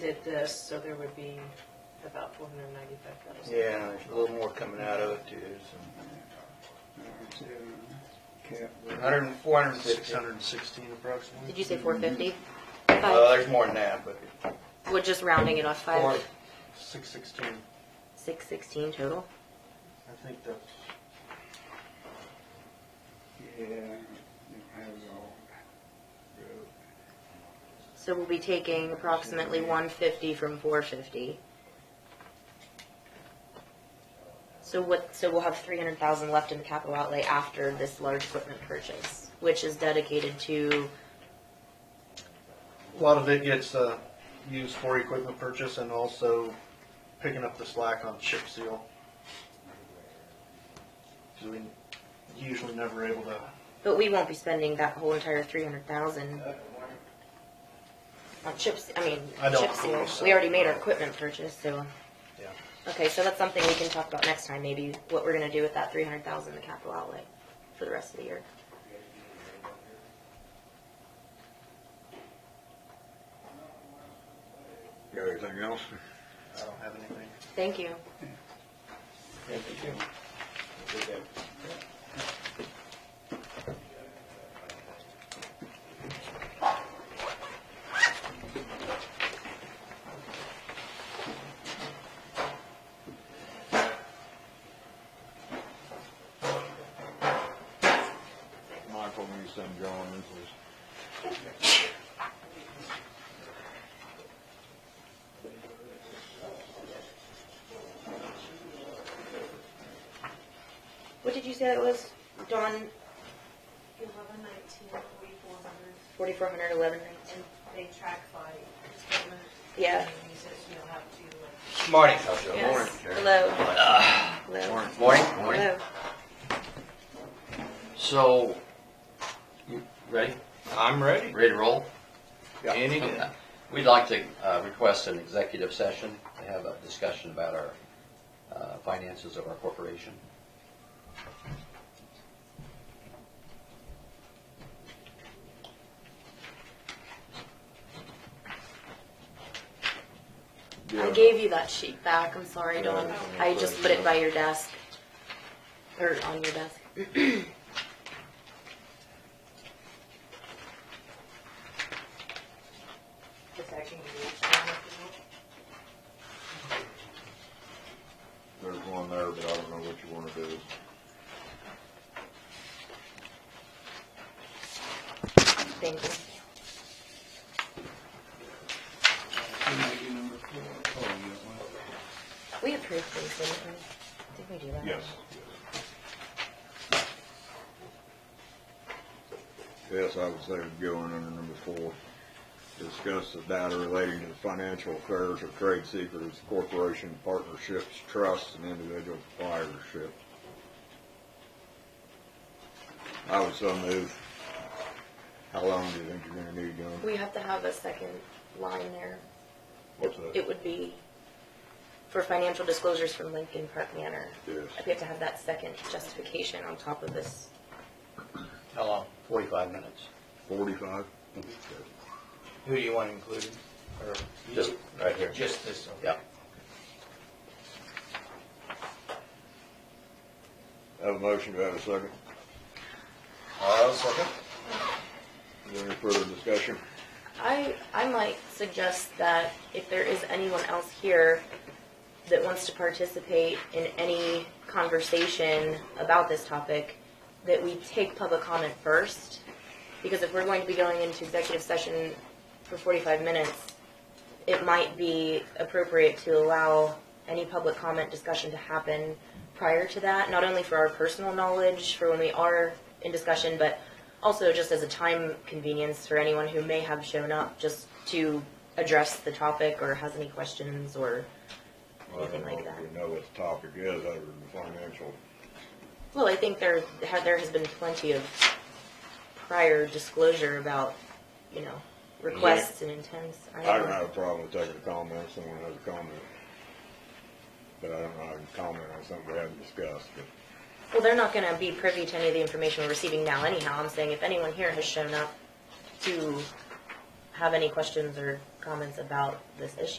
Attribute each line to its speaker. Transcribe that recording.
Speaker 1: did this, so there would be about four hundred and ninety-five thousand.
Speaker 2: Yeah, there's a little more coming out of it too, so. Hundred and, four hundred and
Speaker 3: Six
Speaker 2: sixty.
Speaker 3: hundred and sixteen approximately.
Speaker 4: Did you say four fifty?
Speaker 2: Well,
Speaker 4: Five,
Speaker 2: there's more than that, but
Speaker 4: we're just rounding it off,
Speaker 3: Four,
Speaker 4: five,
Speaker 3: six sixteen,
Speaker 4: six sixteen total?
Speaker 3: I think that's,
Speaker 4: So we'll be taking approximately one fifty from four fifty. So what, so we'll have three hundred thousand left in the capital outlay after this large equipment purchase, which is dedicated to,
Speaker 3: a lot of it gets, uh, used for equipment purchase and also picking up the slack on chip seal. Cause we usually never able to,
Speaker 4: but we won't be spending that whole entire three hundred thousand on chips, I mean,
Speaker 3: I don't
Speaker 4: chip seal.
Speaker 3: believe so.
Speaker 4: We already made our equipment purchase, so.
Speaker 3: yeah.
Speaker 4: Okay, so that's something we can talk about next time, maybe what we're gonna do with that three hundred thousand in the capital outlay for the rest of the year.
Speaker 5: Got anything else?
Speaker 3: I don't have anything.
Speaker 4: Thank you.
Speaker 5: Michael needs them drawings. This
Speaker 4: What did you say that was, Dawn,
Speaker 6: Eleven nineteen forty-four hundred,
Speaker 4: forty-four hundred eleven nineteen?
Speaker 6: and they track by equipment.
Speaker 4: Yeah.
Speaker 6: And he says you'll have to, like,
Speaker 2: Morning.
Speaker 4: Yes. Hello. Hello.
Speaker 2: Morning.
Speaker 4: Hello.
Speaker 7: So, you ready?
Speaker 2: I'm ready.
Speaker 7: Ready to roll?
Speaker 5: Yeah.
Speaker 2: Any day.
Speaker 7: Okay. We'd like to uh, request an executive session to have a discussion about our uh, finances of our corporation.
Speaker 4: I gave you that sheet back, I'm sorry, Dawn,
Speaker 5: Yeah.
Speaker 4: I just put it by your desk, or on your desk.
Speaker 6: protecting the equipment, if you will.
Speaker 5: There's one there, but I don't know what you wanna do.
Speaker 4: Thank you.
Speaker 5: Oh,
Speaker 4: We approved things, didn't we? Did we do that?
Speaker 5: Yes. Yes, I was there going under number four. Discuss the data relating to the financial affairs of trade secrets, corporation partnerships, trusts, and individual proprietorship. I would so move. How long do you think you're gonna need, John?
Speaker 4: We have to have a second line there.
Speaker 5: What's that?
Speaker 4: It would be for financial disclosures from Lincoln Park Manor.
Speaker 5: Yes.
Speaker 4: We have to have that second justification on top of this.
Speaker 2: How long? Forty-five minutes.
Speaker 5: Forty-five?
Speaker 2: Who do you want included? Or
Speaker 7: Just right here.
Speaker 2: Just this one?
Speaker 7: Yeah.
Speaker 5: Have a motion, do I have a second?
Speaker 2: I'll second.
Speaker 5: Is there any further discussion?
Speaker 4: I, I might suggest that if there is anyone else here that wants to participate in any conversation about this topic, that we take public comment first. Because if we're going to be going into executive session for 45 minutes, it might be appropriate to allow any public comment discussion to happen prior to that, not only for our personal knowledge, for when we are in discussion, but also just as a time convenience for anyone who may have shown up just to address the topic or has any questions or,
Speaker 5: Well, I don't
Speaker 4: Anything like
Speaker 5: know if
Speaker 4: that.
Speaker 5: We know what the topic is, other than the financial.
Speaker 4: well, I think there, ha- there has been plenty of prior disclosure about, you know, requests and intents.
Speaker 5: I don't have a problem with taking a comment, if someone has a comment. But I don't know, how to comment on something we haven't discussed, but
Speaker 4: Well, they're not gonna be privy to any of the information we're receiving now anyhow. I'm saying if anyone here has shown up to have any questions or comments about this issue.